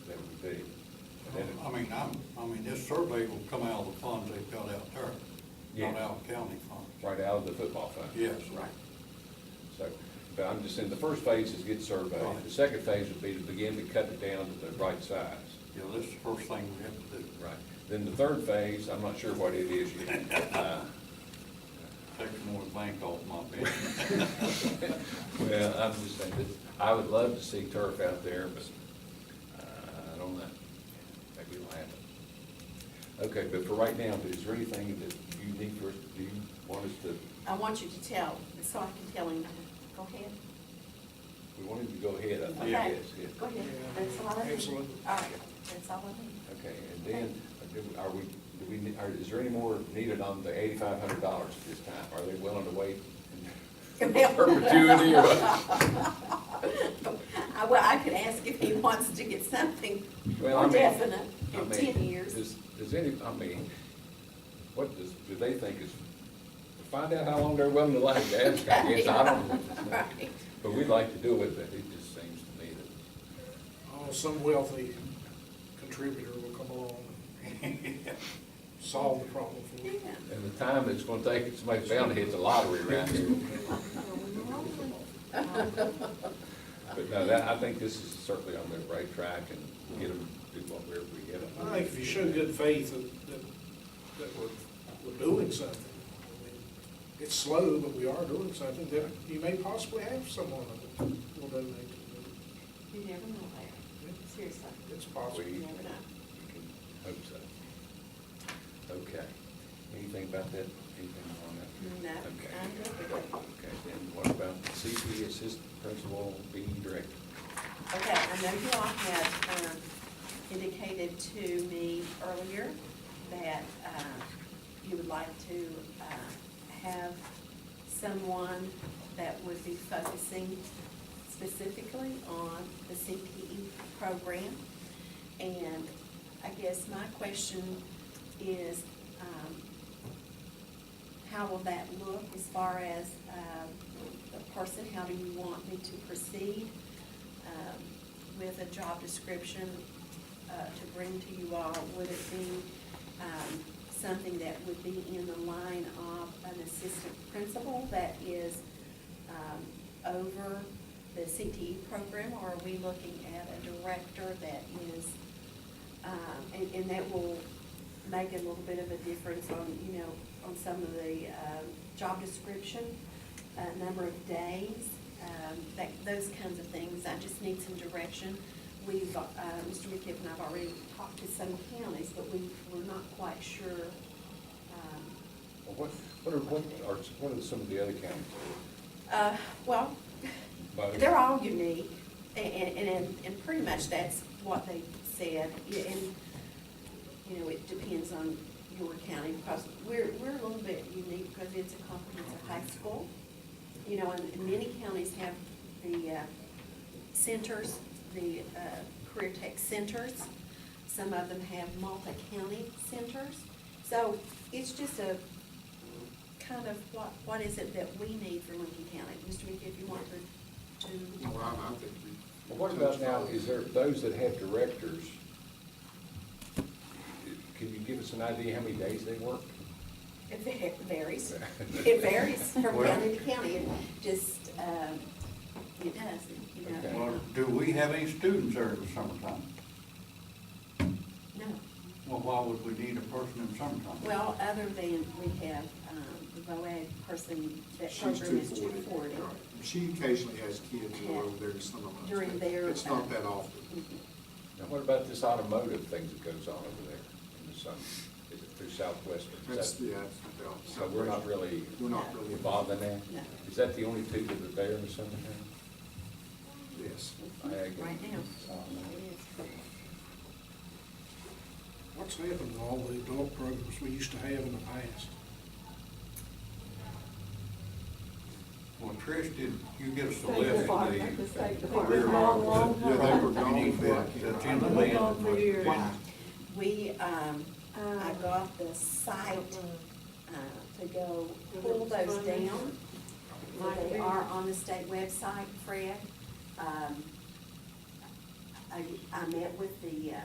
mean, I'm, I mean, this survey will come out of the funds they've got out there, Yeah. not out of county funds. right out of the football fund. Yes, right. So, but I'm just saying, the first phase is get surveyed. Right. The second phase would be to begin to cut it down to the right size. Yeah, this is the first thing we have to do, Right. Then the third phase, I'm not sure what it is yet. Uh, take some more bank off my bench. Well, I'm just saying, that I would love to see turf out there, but uh, I don't know. Maybe we'll have it. Okay, but for right now, is there anything that you need for, us? do you want us to, I want you to tell, so I can tell him, go ahead. we wanted to go ahead, I think, Okay. yes, yes. Go ahead, that's all I need. Excellent. All right, that's all I need. Okay, and then, do- are we, do we, ne- are, is there any more needed on the eighty-five hundred dollars at this time? Are they willing to wait in perpetuity or what? I, well, I could ask if he wants to get something Well, I more mean- definite I in mean, ten years. Does, does any, I mean, what does, do they think is, find out how long they're willing to like to ask, I guess, I don't know. Right. But we'd like to do it, but it just seems to me that, Oh, some wealthy contributor will come along and solve the problem for Yeah. you. and the time it's gonna take, it's somebody's bound to hit the lottery around here. But no, that, I think this is certainly on the right track and get them, do what we're, we get them. I think if you show good faith that, that, that we're, we're doing something, I mean, it's slow, but we are doing something, then you may possibly have someone that will donate to You never know, Larry, seriously, it. It's possible. you never know. We can Hope so. Okay. Anything about that, anything on that? No, Okay. I'm good with it. Okay, then what about CP Assistant Principal being Director? Okay, I know you all had um, indicated to me earlier that um, you would like to uh, have someone that would be focusing specifically on the CPE program. And I guess my question is, um, how will that look as far as um, the person, how do you want me to proceed um, with a job description uh, to bring to you all? Would it be um, something that would be in the line of an assistant principal that is um, over the CTE program? Or are we looking at a director that is, um, and, and that will make a little bit of a difference on, you know, on some of the, um, job description, uh, number of days, um, that, those kinds of things. I just need some direction. We've, uh, Mr. McKibben, and I've already talked to some counties, but we, we're not quite sure, um, Well, What, what are, what are, what are some of the other counties? Uh, well, Both. they're all unique, a- and, and, and pretty much that's what they said. Yeah, And, you know, it depends on your county, because we're, we're a little bit unique, because it's a comprehensive high school. You know, and many counties have the, uh, centers, the, uh, career tech centers. Some of them have multi-county centers. So it's just a, kind of what, what is it that we need for Lincoln County? Mr. McKee, if you want to, to, Well, I I think we. Well, what about now, is there, those that have directors, can you give us an idea how many days they work? it va- varies. It varies from Well- county to county, it just, um, it does, you know. Well, do we have any students there in the summertime? No, Well, why would we need a person in summertime? well, other than we have, um, the VOAG person, that She's program two is two forty. forty. She occasionally has kids who are over there to some of us. During but their, It's not uh, that often. Mm-hmm. Now, what about this automotive things that goes on over there in the summer? Is it through Southwestern? Is that- That's, uh, yeah, that's. So we're not really We're not really. involved in that? No. Is that the only people that are there in the summertime? Yes. Right now, it is. What's happened to all the adult programs we used to have in the past? Well, Trish, did you get us a State list of Department, the the State career Department, long, long Yeah, they were time. gone opportunities for that- that's in the land? Gone for years. And We, um, I got the site, uh, to go pull those down. They are on the state website, Fred. Um, I, I met with the, uh,